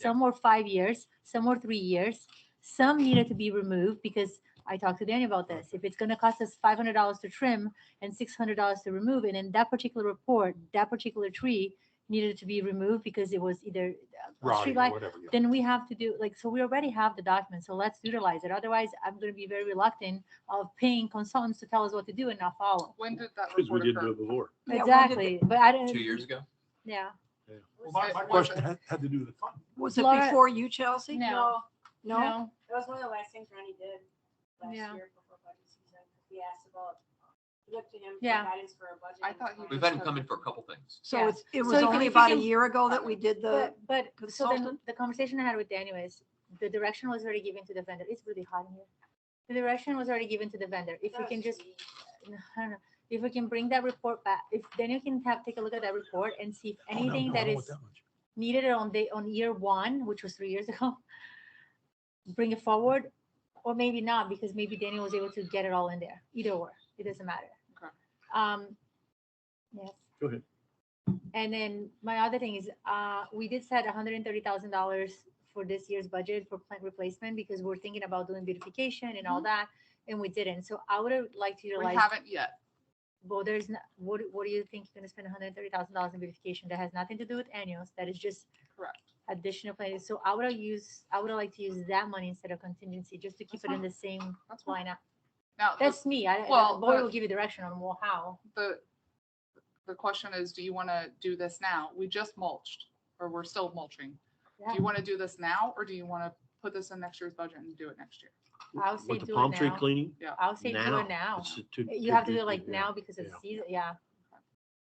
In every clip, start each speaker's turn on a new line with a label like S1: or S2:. S1: some were five years, some were three years. Some needed to be removed because I talked to Danny about this. If it's gonna cost us five hundred dollars to trim and six hundred dollars to remove it, in that particular report, that particular tree needed to be removed because it was either a
S2: Rotting
S1: street
S2: or
S1: light,
S2: whatever. yeah.
S1: then we have to do, like, so we already have the document, so let's utilize it. Otherwise, I'm gonna be very reluctant of paying consultants to tell us what to do and not follow.
S3: When did that
S4: Because we
S3: report
S4: didn't
S3: occur?
S4: do it before.
S5: Yeah, when did
S1: Exactly, but I
S6: two
S1: didn't,
S6: years ago.
S1: yeah.
S2: Well, my,
S3: it-
S2: my
S3: was
S2: question
S3: it-
S2: had, had to do with the fund.
S5: Was it
S1: Laura-
S5: before you, Chelsea?
S1: No.
S5: No?
S7: That was one of the last things Ronnie did last
S1: Yeah.
S7: year before budget season. We asked about, we looked to him for
S1: Yeah.
S7: guidance for a budget.
S3: I
S7: and
S3: thought
S7: stuff.
S3: you
S6: We've had him come in for a couple things.
S5: So
S1: Yeah.
S5: it's, it
S1: So
S5: was
S1: if you-
S5: only
S1: if you
S5: about a
S1: can-
S5: year ago that we did the,
S1: But, but, so then
S5: consultant?
S1: the conversation I had with Danny was, the direction was already given to the vendor. It's really hot in here. The direction was already given to the vendor. If
S7: That
S1: we
S7: was
S1: can just,
S7: me.
S1: I don't know, if we can bring that report back, if then you can have, take a look at that report and see if
S2: Oh, no,
S1: anything
S2: no, I
S1: that
S2: don't want
S1: is
S2: much.
S1: needed on the, on year one, which was three years ago, bring it forward, or maybe not, because maybe Danny was able to get it all in there. Either or, it doesn't matter.
S3: Okay.
S1: Um, yes.
S4: Go ahead.
S1: And then my other thing is, uh, we did set hundred and thirty thousand dollars for this year's budget for plant replacement because we're thinking about doing beautification and all that, and we didn't. So I would have liked to
S3: Mm-hmm. We
S1: utilize,
S3: haven't yet.
S1: well, there's, no- what, what do you think you're gonna spend hundred and thirty thousand dollars in beautification? That has nothing to do with annuals. That is just
S3: Correct.
S1: additional planning. So I would have used, I would have liked to use that money instead of contingency, just to keep
S3: That's
S1: it in the same
S3: That's fine.
S1: lineup.
S3: Now, the-
S1: That's me. I,
S3: Well,
S1: the board
S3: the-
S1: will give you direction on well, how.
S3: the, the question is, do you want to do this now? We just mulched, or we're still mulching. Do
S1: Yeah.
S3: you want to do this now, or do you want to put this in next year's budget and do it next year?
S1: I'll say
S4: With the
S1: do it
S4: palm tree
S1: now.
S4: cleaning.
S1: I'll say do
S4: Now.
S1: it now.
S4: it's too-
S1: You have to
S4: too-
S1: do it like
S4: yeah.
S1: now because of
S4: yeah.
S1: season, yeah.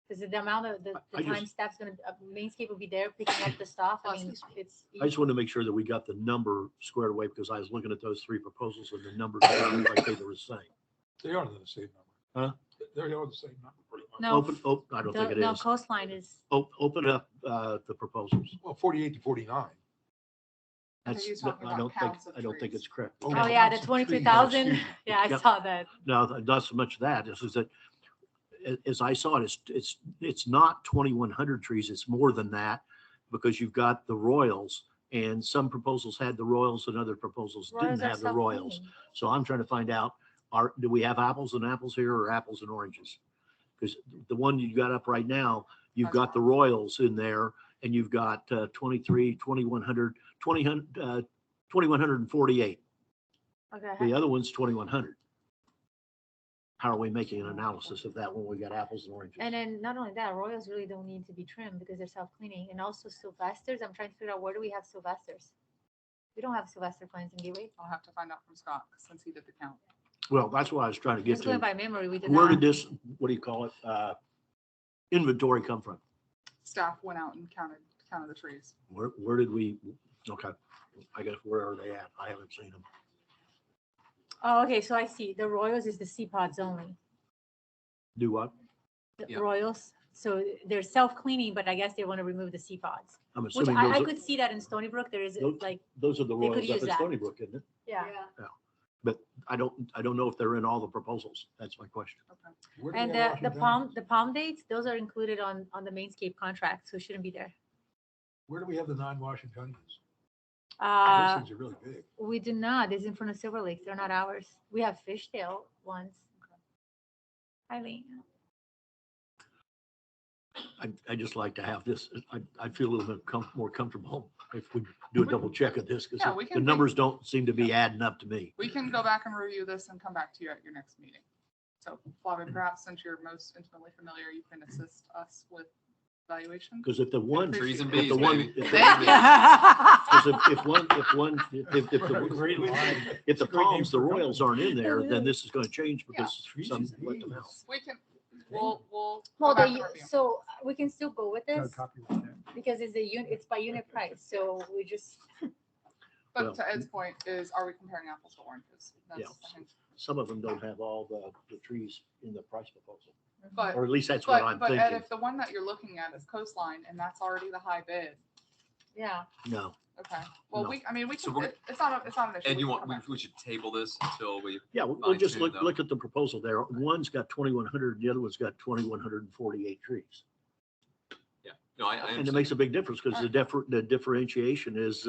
S1: Because the amount of, the,
S4: I- I
S1: the time
S4: just-
S1: staff's gonna, uh, mainscape will be there picking up the stuff. I
S3: Plus
S1: mean,
S3: he's-
S1: it's.
S4: I just wanted to make sure that we got the number squared away because I was looking at those three proposals and the numbers, didn't look like they were the same.
S2: They are the same number.
S4: Huh?
S2: They are the same number. pretty much.
S1: No,
S4: Open, oh, I don't think
S1: the-
S4: it
S1: no
S4: is.
S1: coastline is,
S4: O- Open up uh, the proposals.
S2: Well, forty-eight to forty-nine.
S3: I think
S4: That's,
S3: he's
S4: no,
S3: talking
S4: I
S3: about
S4: don't think,
S3: counts of
S4: I don't think
S3: trees.
S4: it's correct.
S2: Oh,
S1: oh
S2: no,
S1: yeah, the
S2: that's a
S1: twenty-two
S2: tree, that's
S1: thousand.
S2: huge.
S1: Yeah, I
S4: Yep.
S1: saw that.
S4: No, th- not so much that, this is that, a- as I saw it, it's, it's, it's not twenty-one hundred trees, it's more than that. Because you've got the royals and some proposals had the royals and other proposals
S1: Royals
S4: didn't
S1: are
S4: have the royals.
S1: self-cleaning.
S4: So I'm trying to find out, are, do we have apples and apples here or apples and oranges? Because the one you got up right now, you've
S3: That's
S4: got the
S3: wrong.
S4: royals in there and you've got uh, twenty-three, twenty-one hundred, twenty, hun- uh, twenty-one hundred and forty-eight.
S1: Okay,
S4: The other one's twenty-one hundred. How are we making an analysis of that when we got apples and oranges?
S1: and then not only that, royals really don't need to be trimmed because they're self-cleaning and also Sylvester's. I'm trying to figure out where do we have Sylvester's? We don't have Sylvester plans in Gateway.
S3: I'll have to find out from Scott, since he did the count.
S4: Well, that's what I was trying to get
S1: Just going
S4: to.
S1: by memory, we did
S4: Where
S1: not.
S4: did this, what do you call it, uh, inventory come from?
S3: Staff went out and counted, counted the trees.
S4: Where, where did we, okay, I guess where are they at? I haven't seen them.
S1: Oh, okay, so I see. The royals is the C pods only.
S4: Do what?
S1: the
S6: Yeah.
S1: Royals. So they're self-cleaning, but I guess they want to remove the sea pods,
S4: I'm
S1: which
S4: assuming
S1: I, I
S4: those are,
S1: could see that in Stony Brook. There is uh,
S4: Nope.
S1: like,
S4: those are the
S1: they could
S4: Royals
S1: use
S4: up at
S1: that.
S4: Stony Brook, isn't it?
S1: yeah.
S7: Yeah.
S4: I don't, I don't know if they're in all the proposals. That's my question.
S3: Okay.
S2: Where do
S1: And
S2: they
S1: the,
S2: have
S1: the
S2: Rocky Mountain?
S1: palm, the palm dates, those are included on, on the mainscape contract, so it shouldn't be there.
S2: Where do we have the non-Washingtonians? Those
S1: Uh,
S2: things are really big.
S1: we do not, this is in front of Silver Lake. They're not ours. We have fishtail ones. Eileen,
S4: I, I just like to have this, I, I feel a little bit com- more comfortable if we do a double check of this,
S3: Yeah,
S4: because
S3: we
S4: the
S3: can
S4: numbers don't seem to be adding up to me.
S3: We can go back and review this and come back to you at your next meeting. So Flavia, perhaps since you're most intimately familiar, you can assist us with valuation.
S4: Because if the one, if
S6: Trees and
S3: But the
S6: bees,
S4: the one,
S6: baby.
S4: if the
S3: That-
S4: one-
S5: no?
S4: 'cause if if one, if one, if, if the, if the palms, the royals aren't in there, then this is gonna change because some let them out.
S3: We can, we'll, we'll. go
S1: well,
S3: back
S1: they,
S3: and review.
S1: so we can still go with
S2: No
S1: this
S2: copy on that.
S1: because it's a unit, it's by unit price, so we just.
S4: Well-
S3: But to Ed's point is, are we comparing apples to oranges? That's, I think,
S4: Some of them don't have all the, the trees in the price proposal,
S3: But,
S4: or at least that's what
S3: but,
S4: I'm
S3: but Ed,
S4: thinking.
S3: if the one that you're looking at is coastline and that's already the high bid,
S1: Yeah.
S4: No,
S3: okay. Well,
S4: No.
S3: we, I mean, we
S6: So
S3: can,
S6: we're-
S3: it- it's not, a- it's not an issue.
S6: And
S3: We
S6: you
S3: can
S6: want,
S3: come
S6: we,
S3: back.
S6: we should table this until we,
S4: yeah, we'll we'll just
S6: Fine-tune
S4: look,
S6: them.
S4: look at the proposal there. One's got twenty-one hundred, the other one's got twenty-one hundred and forty-eight trees.
S6: No, I, I
S4: And
S6: understand.
S4: it makes a big difference because the differ, the differentiation is,